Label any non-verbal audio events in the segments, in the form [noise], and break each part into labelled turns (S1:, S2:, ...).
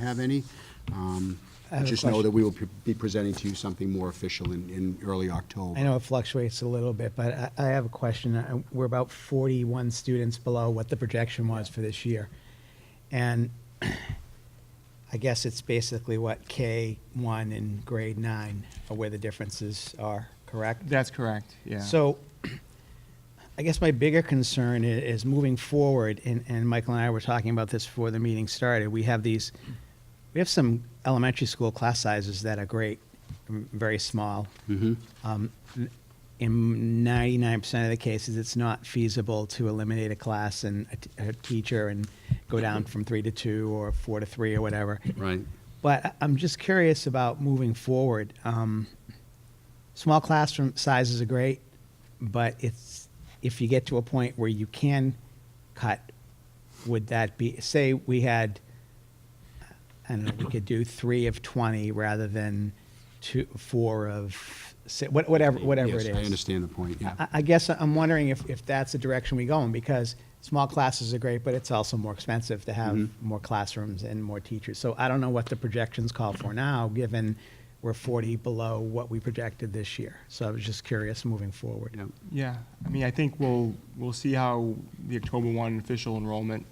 S1: have any. Um,
S2: I have a
S1: Just know
S2: question.
S1: that we will pre- be presenting to you something more official in, in early
S2: I
S1: October.
S2: know it fluctuates a little bit, but I, I have a question. I- We're about 41 students below what the projection was for this year. And [clears throat] I guess it's basically what K1 and grade nine are where the differences are, correct?
S3: That's correct, yeah.
S2: So I guess my bigger concern i- is moving forward, and, and Michael and I were talking about this before the meeting started. We have these, we have some elementary school class sizes that are great, m- very small. Um, n- In ninety-nine percent of the cases, it's not feasible to eliminate a class and a t- a teacher and go down from three to two or four to three or whatever.
S1: Right.
S2: But I- I'm just curious about moving forward. Um, small classroom sizes are great, but it's if you get to a point where you can cut, would that be say we had I don't know, we could do three of twenty rather than two four of si- what- whatever whatever
S1: Yes,
S2: it is.
S1: I understand the point, yeah.
S2: I, I guess I'm wondering if, if that's the direction we go in, because small classes are great, but it's also more expensive to have more classrooms and more teachers. So I don't know what the projections call for now, given we're 40 below what we projected this year. So I was just curious moving forward.
S1: Yeah.
S3: Yeah, I mean, I think we'll, we'll see how the October 1 official enrollment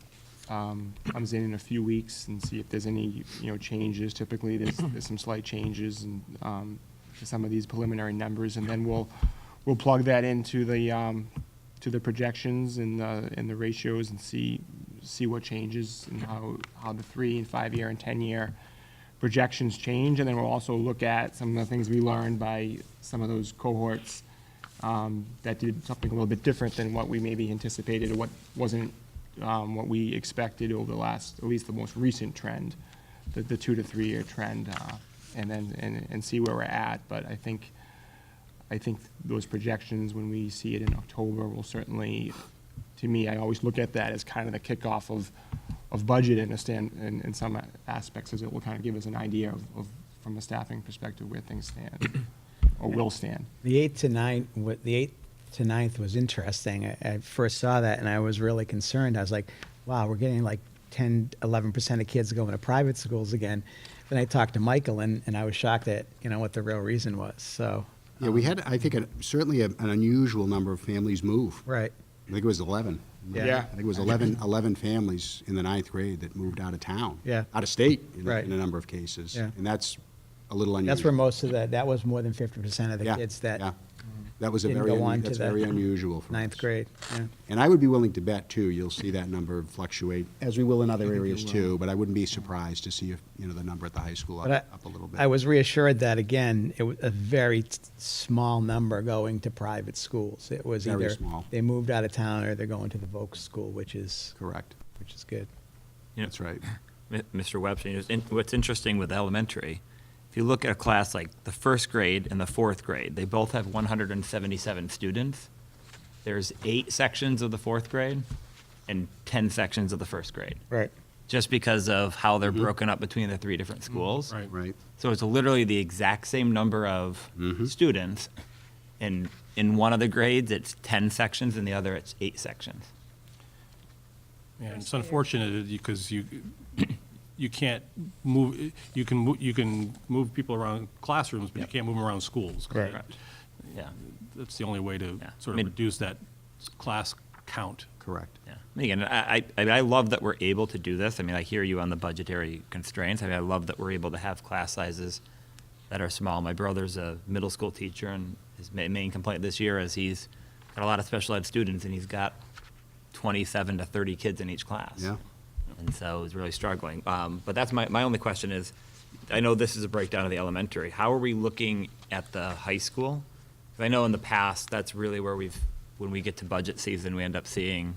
S3: um, comes in in a few weeks and see if there's any, you know, changes. Typically, there's, there's some slight changes and um, to some of these preliminary numbers. And then we'll, we'll plug that into the, um, to the projections and, the- and the ratios and see, see what changes and how, how the three and five-year and 10-year projections change. And then we'll also look at some of the things we learned by some of those cohorts um, that did something a little bit different than what we maybe anticipated, or what wasn't um, what we expected over the last, at least the most recent trend, the, the two to three-year trend, uh, and then, and, and see where we're at. But I think, I think those projections, when we see it in October, will certainly, to me, I always look at that as kind of the kickoff of, of budget and a stand, in, in some aspects, as it will kind of give us an idea of, of, from a staffing perspective, where things stand, or will stand.
S2: The eight to nine, wa- the eighth to ninth was interesting. I, I first saw that and I was really concerned. I was like, wow, we're getting like 10, 11% of kids going to private schools again. Then I talked to Michael and, and I was shocked at, you know, what the real reason was, so.
S1: Yeah, we had, I think, a- certainly a- an unusual number of families move.
S2: Right.
S1: I think it was 11.
S2: Yeah.
S3: Yeah.
S1: I think it was
S2: [laughs]
S1: 11, 11 families in the ninth grade that moved out of town.
S2: Yeah.
S1: Out of state, in a-
S2: Right.
S1: in a number of cases.
S2: Yeah.
S1: And that's a little unusual.
S2: That's where most of the, that was more than fifty percent of the
S1: Yeah,
S2: kids that
S1: yeah. That was a
S2: didn't
S1: very,
S2: go
S1: unu-
S2: on to
S1: that's
S2: the
S1: very unusual for us.
S2: ninth grade, yeah.
S1: And I would be willing to bet, too, you'll see that number fluctuate, as we will in other areas, too, but I wouldn't be surprised to see if, you know, the number at the high school up
S2: But I-
S1: up a little bit.
S2: I was reassured that, again, it was a very t- small number going to private schools. It was
S1: Very
S2: either
S1: small.
S2: they moved out of town or they're going to the Volk School, which is,
S1: Correct.
S2: which is good.
S4: You know,
S1: That's right.
S4: M- Mr. Webster, you know, in- what's interesting with elementary, if you look at a class like the first grade and the fourth grade, they both have 177 students. There's eight sections of the fourth grade and 10 sections of the first grade,
S2: Right.
S4: just because of how they're broken up between the three different schools.
S1: Mm-hmm. Right.
S4: So it's literally the exact same number of
S1: Mm-hmm.
S4: students. And in one of the grades, it's 10 sections, in the other, it's eight sections.
S5: Yeah, it's unfortunate because you, [coughs] you can't move, you can, mo- you can move people around classrooms, but you can't move them around schools.
S2: Correct.
S4: Correct. Yeah.
S5: That's the only way to
S4: Yeah.
S5: sort
S4: I mean-
S5: of reduce that s- class count.
S1: Correct.
S4: Yeah. And Again, I, I, I mean, I love that we're able to do this. I mean, I hear you on the budgetary constraints. I mean, I love that we're able to have class sizes that are small. My brother's a middle school teacher, and his ma- main complaint this year is he's got a lot of special ed students, and he's got 27 to 30 kids in each class.
S1: Yeah.
S4: And so he's really struggling. Um, but that's my, my only question is, I know this is a breakdown of the elementary. How are we looking at the high school? 'Cause I know in the past, that's really where we've, when we get to budget season, we end up seeing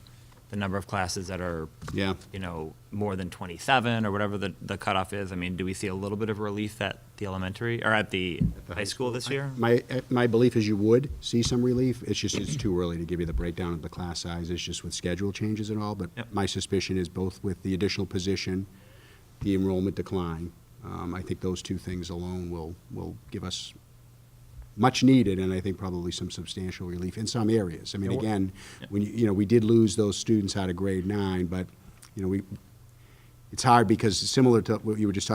S4: the number of classes that are,
S1: Yeah.
S4: you know, more than 27 or whatever the, the cutoff is. I mean, do we see a little bit of relief at the elementary or at the high school this year?
S1: My, uh, my belief is you would see some relief. It's just, it's too early to give you the breakdown of the class sizes, just with schedule changes and all. But
S4: Yep.
S1: my suspicion is both with the additional position, the enrollment decline, um, I think those two things alone will, will give us much needed, and I think probably some substantial relief in some areas. I mean,
S2: Yeah, wha-
S1: again, when, you you know, we did lose those students out of grade nine, but, you know, we, it's hard because similar to what you were just talking